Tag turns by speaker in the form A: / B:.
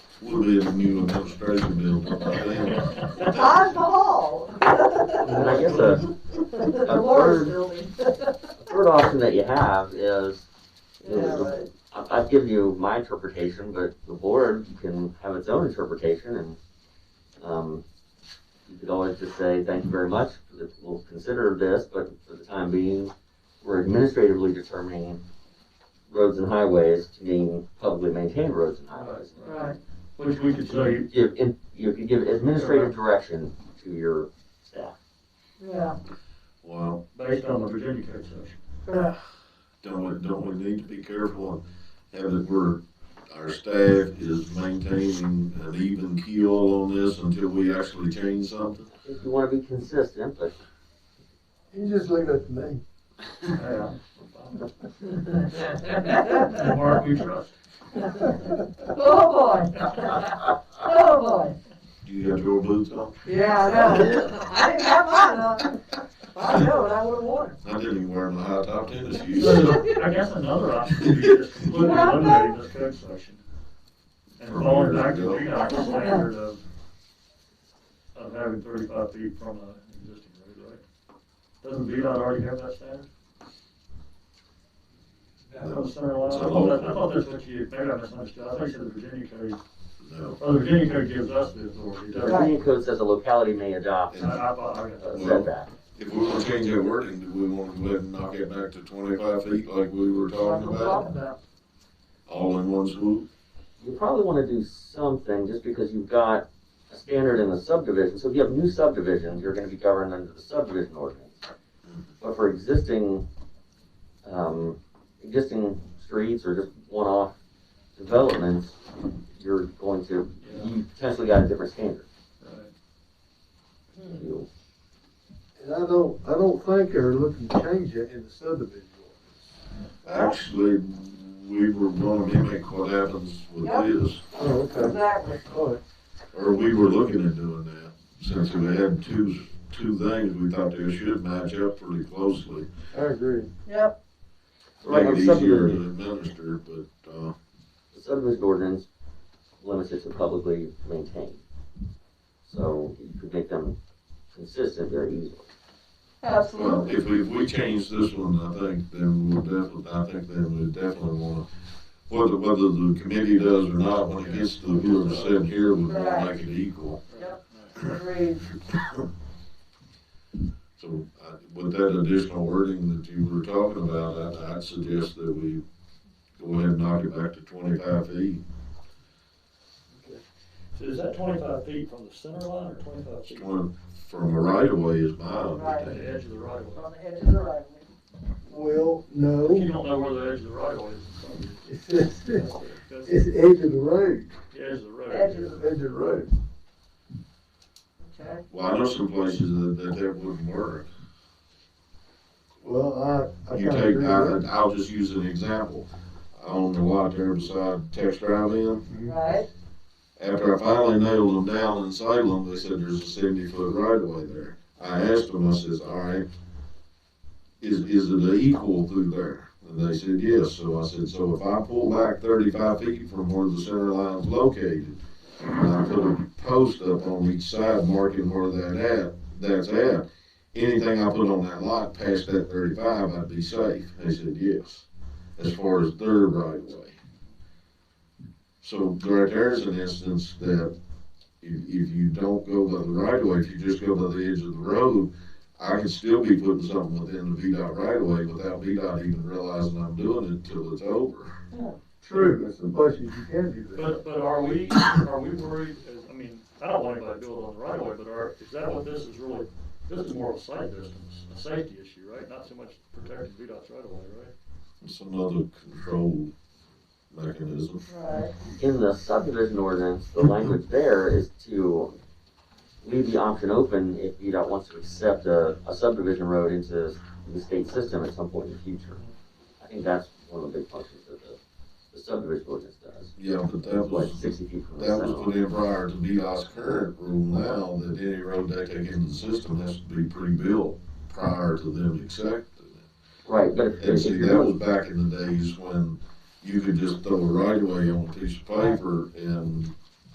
A: We'll be in the new administration building.
B: Alcohol.
C: And I guess a,
B: The
C: a
B: Morris
C: third-
B: Building.
C: a third option that you have is,
B: Yeah, right.
C: I- I've given you my interpretation, but the board can have its own interpretation and, um, you could always just say, thank you very much, we'll consider this, but for the time being, we're administratively determining roads and highways to being publicly maintained roads and highways.
B: Right.
D: Which we could say,
C: You, in- you could give administrative direction to your staff.
B: Yeah.
A: Well,
D: based on the Virginia code section.
B: Right.
A: don't we, don't we need to be careful and have it where our staff is maintaining an even keel on this until we actually change something?
C: If you wanna be consistent, but
E: You just leave it to me.
D: Yeah. The Mark we trust.
B: Oh, boy. Oh, boy.
A: Do you have your boots on?
B: Yeah, I know. I didn't have mine on. I know, and I would've worn
A: I didn't even wear my high top tennis shoes.
D: So, I guess another option would be just completely eliminating this code section. And falling back to the Peacock's standard of, of having thirty-five feet from an existing road, right? Doesn't VDOT already have that standard? From the center line, I thought that- I thought that's what you, maybe I misunderstood, I think that the Virginia code,
A: No.
D: well, the Virginia code gives us the authority,
C: the
D: doesn't it?
C: Virginia code says a locality may adopt uh,
D: I, I, I got
C: a
D: that.
C: setback.
A: If we want to change that wording, do we want to go ahead and knock it back to twenty-five feet like we were
B: it. That's
A: talking
B: what I'm talking
A: about?
B: about.
A: All in one swoop?
C: you probably want to do something just because you've got a standard in the subdivision. So if you have new subdivisions, you're going to be governed under the subdivision ordinance. But for existing, um, existing streets or just one-off developments, you're going to, you potentially got a different standard. You-
E: And I don't, I don't think they're looking to change it in the subdivision.
A: Actually, we were gonna mimic what happens with
B: Yep.
A: this,
E: Oh,
B: Exactly.
E: All right.
A: or we were looking at doing that. Since we had two, two things, we thought they should match up pretty closely.
E: I agree.
B: Yep.
C: Right,
A: Make
C: on
A: it easier
C: subdivision,
A: to administer, but, uh,
C: the subdivision ordinance limits it to publicly maintained. So you could make them consistent very easily.
A: well,
B: Absolutely.
A: if we, if we change this one, I think then we'll definitely, I think then we definitely wanna, whether, whether the committee does or not, when it gets to the viewer sitting here, we wanna make it equal.
B: Agreed.
A: So I- with that additional wording that you were talking about, I- I'd suggest that we go ahead and knock it back to twenty-five E. feet,
D: So is that twenty-five feet from the center line or twenty-five feet from
A: Going from a right-of-way is my
D: the
A: understanding.
D: edge of the right of way?
B: On the edge of the right.
E: Well,
D: You
E: no,
D: don't know where the edge of the right of way is.
E: it's, it's, it's
D: That's
E: the edge of the road,
D: the edge of the
B: Edge of
E: edge
D: road.
E: of the road.
B: Okay.
A: Well, I know some places that, that that wouldn't work.
E: Well, I, I
A: You
E: kind of
A: take,
E: agree
A: I,
E: with that.
A: I'll just use an example. I own the lot there beside Tex Drive In.
B: Right.
A: After I finally nailed them down in Salem, they said there's a seventy-foot right-of-way there. I asked them, I says, all right, is, is it an equal through there? And they said, yes. So I said, so if I pull back thirty-five feet from where the center line's located, and I put a post up on each side marking where that at, that's at, anything I put on that lot past that thirty-five, I'd be safe. They said, yes, as far as their right-of-way. So right there is an instance that if, if you don't go by the right of way, if you just go by the edge of the road, I can still be putting something within the VDOT right of way without VDOT even realizing I'm doing it till it's over.
E: True, it's the places you can do that.
D: But, but are we, are we worried, as- I mean, I don't want anybody to build on the right of way, but are, is that what this is really, this is more of a site distance, a safety issue, right? Not so much protecting VDOT's right of way, right?
A: It's another control mechanism.
B: Right.
C: in the subdivision ordinance, the language there is to leave the option open if VDOT wants to accept a, a subdivision road into the state system at some point in the future. I think that's one of the big functions that the, the subdivision ordinance does.
A: Yeah, but that
C: Like
A: was,
C: sixty feet from the
A: that
C: center
A: was put
C: line.
A: in prior to VDOT's current rule now that any road they take into the system has to be pre-built prior to them accepting it.
C: Right, but if,
A: And
C: if
A: see,
C: you're
A: that was
C: doing,
A: back in the days when you could just throw a right of way on a piece of paper and